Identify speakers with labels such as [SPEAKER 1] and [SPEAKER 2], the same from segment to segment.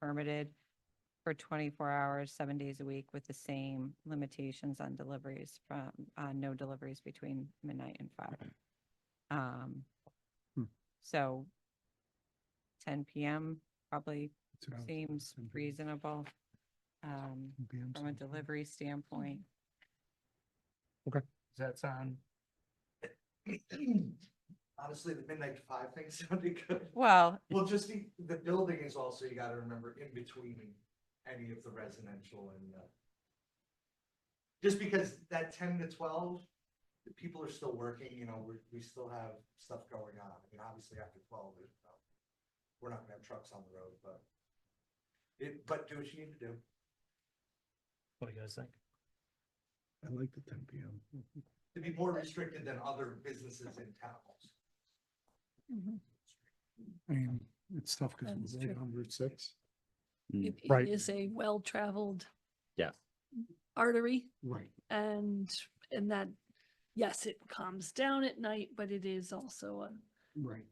[SPEAKER 1] permitted for twenty-four hours, seven days a week with the same limitations on deliveries from, uh, no deliveries between midnight and five. Um,
[SPEAKER 2] Hmm.
[SPEAKER 1] so ten PM probably
[SPEAKER 2] That's what I was
[SPEAKER 1] seems
[SPEAKER 2] thinking.
[SPEAKER 1] reasonable, um,
[SPEAKER 2] 10
[SPEAKER 1] from
[SPEAKER 2] PM
[SPEAKER 1] a
[SPEAKER 2] sounds good.
[SPEAKER 1] delivery standpoint.
[SPEAKER 3] Does that sound?
[SPEAKER 4] Honestly, the midnight to five thing sounded good.
[SPEAKER 1] Well,
[SPEAKER 4] Well, just the, the building is also, you gotta remember, in between any of the residential and the. Just because that ten to twelve, the people are still working, you know, we, we still have stuff going on. I mean, obviously after twelve, there's no, we're not gonna have trucks on the road, but. It, but do what you need to do.
[SPEAKER 3] What do you guys think?
[SPEAKER 2] I like the ten PM.
[SPEAKER 4] to be more restricted than other businesses in towns.
[SPEAKER 2] I mean, it's tough because
[SPEAKER 5] That's
[SPEAKER 2] we're right
[SPEAKER 5] true.
[SPEAKER 2] on Route six.
[SPEAKER 5] It
[SPEAKER 2] Right.
[SPEAKER 5] it is a well-traveled.
[SPEAKER 6] Yeah.
[SPEAKER 5] Artery
[SPEAKER 2] Right.
[SPEAKER 5] and, and that, yes, it calms down at night, but it is also a,
[SPEAKER 2] Right.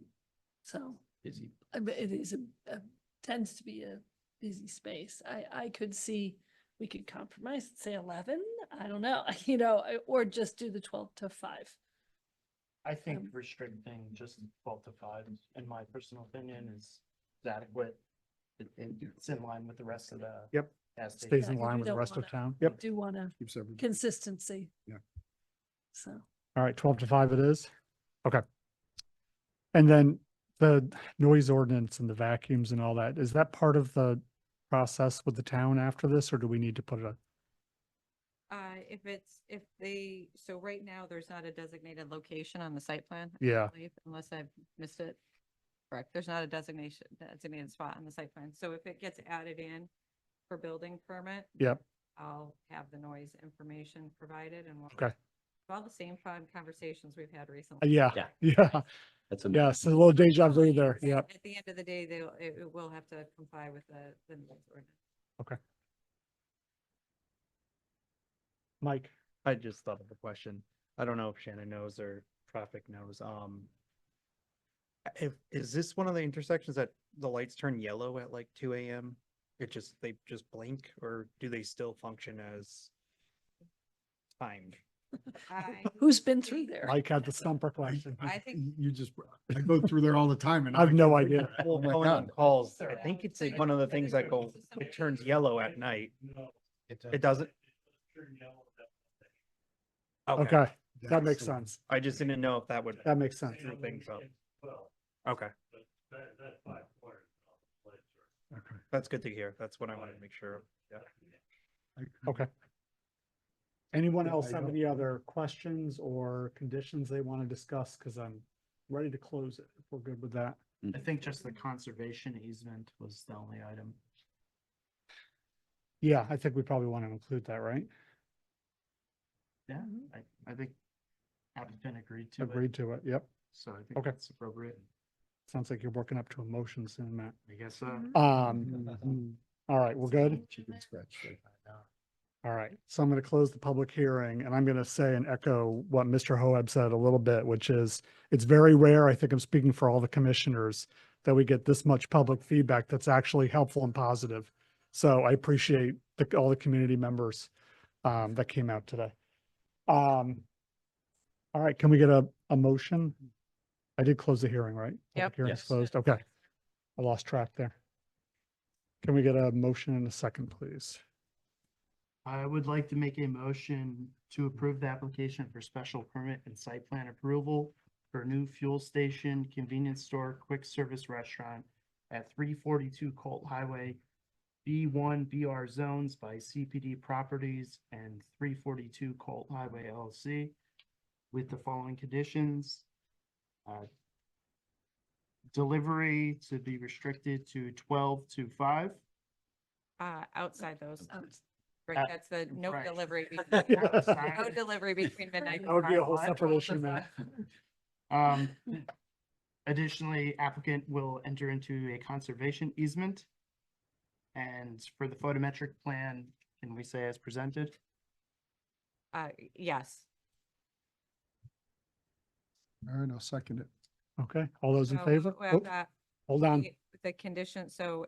[SPEAKER 5] so.
[SPEAKER 6] busy.
[SPEAKER 5] I bet It is a, a- tends to be a busy space. I, I could see, we could compromise, and say eleven, I don't know, you know, I- or just do the twelve to five.
[SPEAKER 3] I think
[SPEAKER 5] Um,
[SPEAKER 3] restricting just twelve to five, in my personal opinion, is adequate. It- it- It's in line with the rest of the.
[SPEAKER 2] Yep.
[SPEAKER 3] gas
[SPEAKER 2] Stays
[SPEAKER 3] station.
[SPEAKER 2] in
[SPEAKER 5] Yeah, 'cause
[SPEAKER 2] line
[SPEAKER 5] we
[SPEAKER 2] with the
[SPEAKER 5] don't
[SPEAKER 2] rest of
[SPEAKER 5] wanna-
[SPEAKER 2] town.
[SPEAKER 5] I
[SPEAKER 2] Yep.
[SPEAKER 5] Do want to
[SPEAKER 2] Keeps everything.
[SPEAKER 5] consistency.
[SPEAKER 2] Yeah.
[SPEAKER 5] So.
[SPEAKER 2] All right, twelve to five it is? Okay. And then the noise ordinance and the vacuums and all that, is that part of the process with the town after this, or do we need to put it? on-
[SPEAKER 1] Uh, if it's, if they, so right now, there's not a designated location on the site plan. I
[SPEAKER 2] Yeah.
[SPEAKER 1] believe, Unless I've missed it. Correct, there's not a designation, designated spot on the site plan, so if it gets added in for building permit.
[SPEAKER 2] Yep.
[SPEAKER 1] I'll have the noise information provided and. we'll-
[SPEAKER 2] Okay.
[SPEAKER 1] All the same fun conversations we've had recently.
[SPEAKER 2] Yeah,
[SPEAKER 6] Yeah.
[SPEAKER 2] yeah,
[SPEAKER 6] That's a.
[SPEAKER 2] yes, a little deja vu there, yeah.
[SPEAKER 1] At the end of the day, they'll, it it will have to comply with the, the noise ordinance.
[SPEAKER 2] Mike,
[SPEAKER 7] I just thought of a question. I don't know if Shannon knows or traffic knows, um. If, is this one of the intersections that the lights turn yellow at like two AM? It just, they just blink or do they still function as? Timed?
[SPEAKER 1] I-
[SPEAKER 5] Who's been through there?
[SPEAKER 2] Mike had the stumper question.
[SPEAKER 1] I think-
[SPEAKER 2] You just,
[SPEAKER 8] I go through there all the time and.
[SPEAKER 2] I have no
[SPEAKER 8] can't
[SPEAKER 2] idea.
[SPEAKER 8] figure it out.
[SPEAKER 7] Well,
[SPEAKER 8] Oh my
[SPEAKER 7] going on
[SPEAKER 8] God.
[SPEAKER 7] calls,
[SPEAKER 1] Sir.
[SPEAKER 7] I think it's
[SPEAKER 1] So
[SPEAKER 7] like
[SPEAKER 1] you-
[SPEAKER 7] one of the
[SPEAKER 1] so
[SPEAKER 7] things
[SPEAKER 1] you-
[SPEAKER 7] that go,
[SPEAKER 1] so somebody-
[SPEAKER 7] it turns yellow at night. It doesn't? Okay,
[SPEAKER 2] Okay, that makes sense.
[SPEAKER 7] I just didn't know if that would
[SPEAKER 2] That makes sense.
[SPEAKER 7] screw things up. Okay,
[SPEAKER 2] Okay.
[SPEAKER 7] that's good to hear. That's what I wanted to make sure of.
[SPEAKER 8] I-
[SPEAKER 2] Okay. Anyone
[SPEAKER 8] Yeah,
[SPEAKER 2] else
[SPEAKER 8] I
[SPEAKER 2] have
[SPEAKER 8] don't-
[SPEAKER 2] any other questions or conditions they want to discuss? Because I'm ready to close it. if We're good with that.
[SPEAKER 3] I think just the conservation easement was the only item.
[SPEAKER 2] Yeah, I think we probably want to include that, right?
[SPEAKER 3] Yeah, I, I think applicant agreed to it,
[SPEAKER 2] Agreed to it. Yep.
[SPEAKER 3] so I think
[SPEAKER 2] Okay.
[SPEAKER 3] that's appropriate.
[SPEAKER 2] Sounds like you're working up to a motion soon, Matt.
[SPEAKER 3] I guess, uh,
[SPEAKER 5] Mm-hmm.
[SPEAKER 2] Um, all right, we're good.
[SPEAKER 8] Chicken scratch.
[SPEAKER 2] All right. So I'm going to close the public hearing and I'm going to say and echo what Mr. Hoeb said a little bit, which is it's very rare. I think I'm speaking for all the commissioners that we get this much public feedback that's actually helpful and positive. So I appreciate the, all the community members um, that came out today. Um, all right, can we get a, a motion? I did close the hearing, right?
[SPEAKER 1] Yep.
[SPEAKER 2] Public Hearing's
[SPEAKER 6] Yes.
[SPEAKER 2] closed. Okay. I lost track there. Can we get a motion and a second, please?
[SPEAKER 3] I would like to make a motion to approve the application for special permit and site plan approval for a new fuel station, convenience store, quick service restaurant at three forty-two Colt Highway, B one BR zones by CPD Properties and three forty-two Colt Highway LLC with the following conditions. Uh, Delivery to be restricted to twelve to five.
[SPEAKER 1] Uh, outside those,
[SPEAKER 5] Um,
[SPEAKER 1] right,
[SPEAKER 3] Uh,
[SPEAKER 1] that's the no
[SPEAKER 3] right.
[SPEAKER 1] delivery. between- No
[SPEAKER 3] Outside-
[SPEAKER 1] delivery between midnight.
[SPEAKER 2] That would be a whole
[SPEAKER 1] and five.
[SPEAKER 2] separate issue, man.
[SPEAKER 3] Um, additionally, applicant will enter into a conservation easement. And for the photometric plan, can we say as presented?
[SPEAKER 1] Uh, yes.
[SPEAKER 8] All right, I'll second it.
[SPEAKER 2] Okay, all those in
[SPEAKER 1] So,
[SPEAKER 2] favor?
[SPEAKER 1] well,
[SPEAKER 2] Oh,
[SPEAKER 1] that-
[SPEAKER 2] Hold on.
[SPEAKER 1] the- The condition, so